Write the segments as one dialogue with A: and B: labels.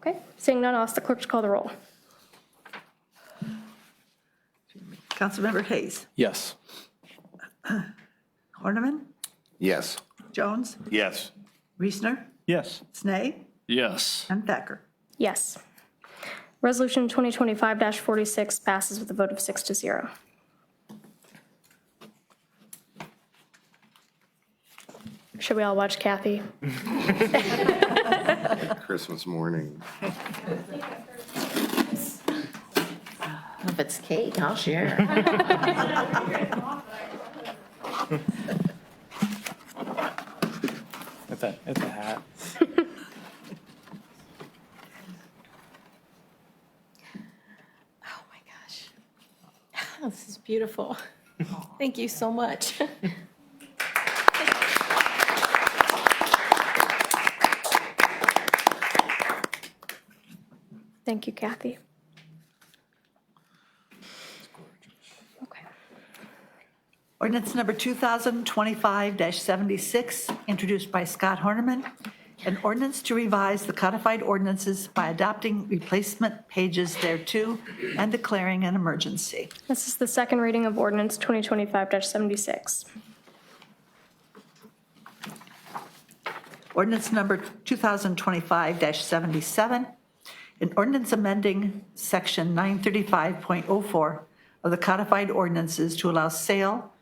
A: Okay, seeing none, I'll ask the clerk to call the roll.
B: Councilmember Hayes,
C: Yes.
B: Horniman,
D: Yes.
B: Jones,
D: Yes.
B: Reesner,
C: Yes.
B: Snee,
C: Yes.
B: and Thacker.
A: Yes. Resolution 2025-46 passes with a vote of six to zero. Should we all watch Kathy?
D: Christmas morning.
E: If it's cake, I'll
F: Oh
E: share.
C: It's a, it's a hat.
F: Oh my gosh. This is beautiful. Thank you so much.
A: Thank you, Kathy. Okay.
B: Ordinance number 2025-76, introduced by Scott Horniman, an ordinance to revise the codified ordinances by adopting replacement pages thereto and declaring an emergency.
A: This is the second reading of ordinance 2025-76.
B: Ordinance number 2025-77, an ordinance amending section 935.04 of the codified ordinances to allow sale,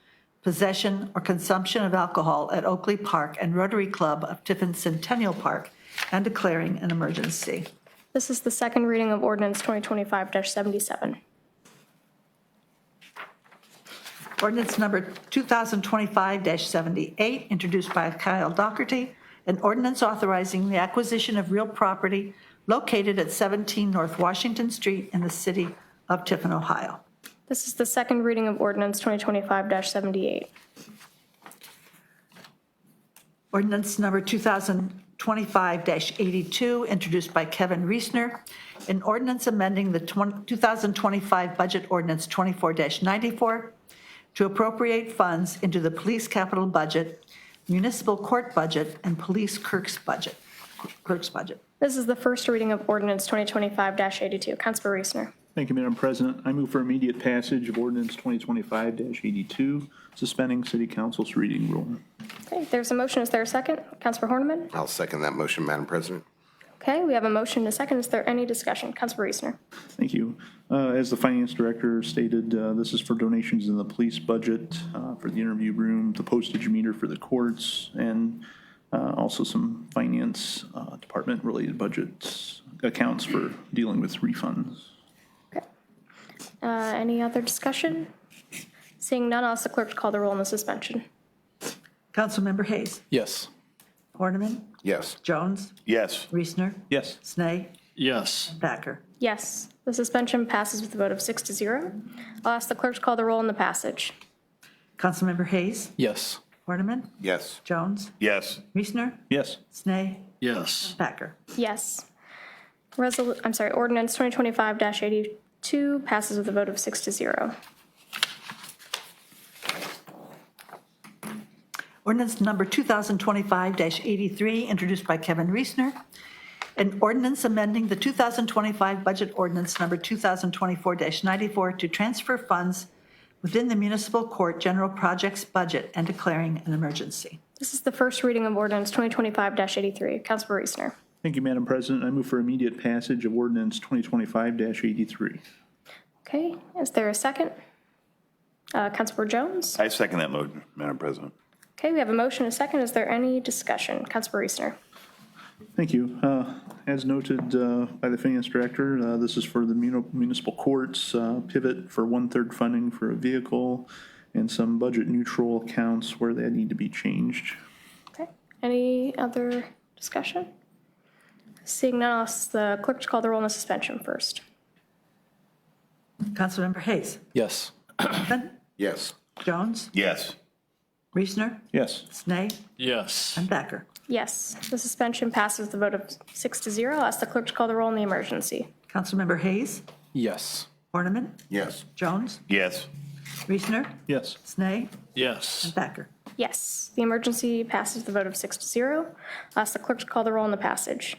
B: possession, or consumption of alcohol at Oakley Park and Rotary Club of Tiffin Centennial Park and declaring an emergency.
A: This is the second reading of ordinance 2025-77.
B: Ordinance number 2025-78, introduced by Kyle Dougherty, an ordinance authorizing the acquisition of real property located at 17 North Washington Street in the city of Tiffin, Ohio.
A: This is the second reading of ordinance 2025-78.
B: Ordinance number 2025-82, introduced by Kevin Reesner, an ordinance amending the 20- 2025 Budget Ordinance 24-94 to appropriate funds into the police capital budget, municipal court budget, and police clerk's budget, clerk's budget.
A: This is the first reading of ordinance 2025-82. Councilor Reesner.
G: Thank you, Madam President. I move for immediate passage of ordinance 2025-82, suspending city council's reading rule.
A: Okay, there's a motion. Is there a second? Councilor Horniman?
D: I'll second that motion, Madam President.
A: Okay, we have a motion and a second. Is there any discussion? Councilor Reesner.
G: Thank you. Uh, As the finance director stated, uh, this is for donations in the police budget, uh, for the interview room, the postage meter for the courts, and uh, also some finance uh, department-related budgets, accounts for dealing with refunds.
A: Okay. Uh, Any other discussion? Seeing none, I'll ask the clerk to call the roll on the suspension.
B: Councilmember Hayes.
C: Yes.
B: Horniman.
D: Yes.
B: Jones.
D: Yes.
B: Reesner.
G: Yes.
B: Snee.
C: Yes.
B: Thacker.
A: Yes, the suspension passes with a vote of six to zero. I'll ask the clerk to call the roll on the passage.
B: Councilmember Hayes.
C: Yes.
B: Horniman.
D: Yes.
B: Jones.
D: Yes.
B: Reesner.
G: Yes.
B: Snee.
C: Yes.
B: Thacker.
A: Yes. Resol, I'm sorry, ordinance 2025-82 passes with a vote of six to zero.
B: Ordinance number 2025-83, introduced by Kevin Reesner. An ordinance amending the 2025 budget ordinance number 2024-94 to transfer funds within the municipal court general projects budget and declaring an emergency.
A: This is the first reading of ordinance 2025-83. Councilor Reesner.
G: Thank you, Madam President. I move for immediate passage of ordinance 2025-83.
A: Okay, is there a second? Uh, Councilor Jones?
H: I second that motion, Madam President.
A: Okay, we have a motion, and a second. Is there any discussion? Councilor Reesner.
G: Thank you. Uh, As noted uh, by the finance director, uh, this is for the muni- municipal courts uh, pivot for one-third funding for a vehicle and some budget-neutral accounts where they need to be changed.
A: Okay, any other discussion? Seeing none, I'll ask the clerk to call the roll on the suspension first.
B: Councilmember Hayes.
C: Yes.
B: Griffin,
D: Yes.
B: Jones.
H: Yes.
B: Reesner.
G: Yes.
B: Snee.
C: Yes.
B: And Thacker.
A: Yes, the suspension passes with a vote of six to zero. I'll ask the clerk to call the roll on the emergency.
B: Councilmember Hayes.
C: Yes.
B: Horniman.
D: Yes.
B: Jones.
H: Yes.
B: Reesner.
G: Yes.
B: Snee.
C: Yes.
B: Thacker.
A: Yes, the emergency passes with a vote of six to zero. I'll ask the clerk to call the roll on the passage.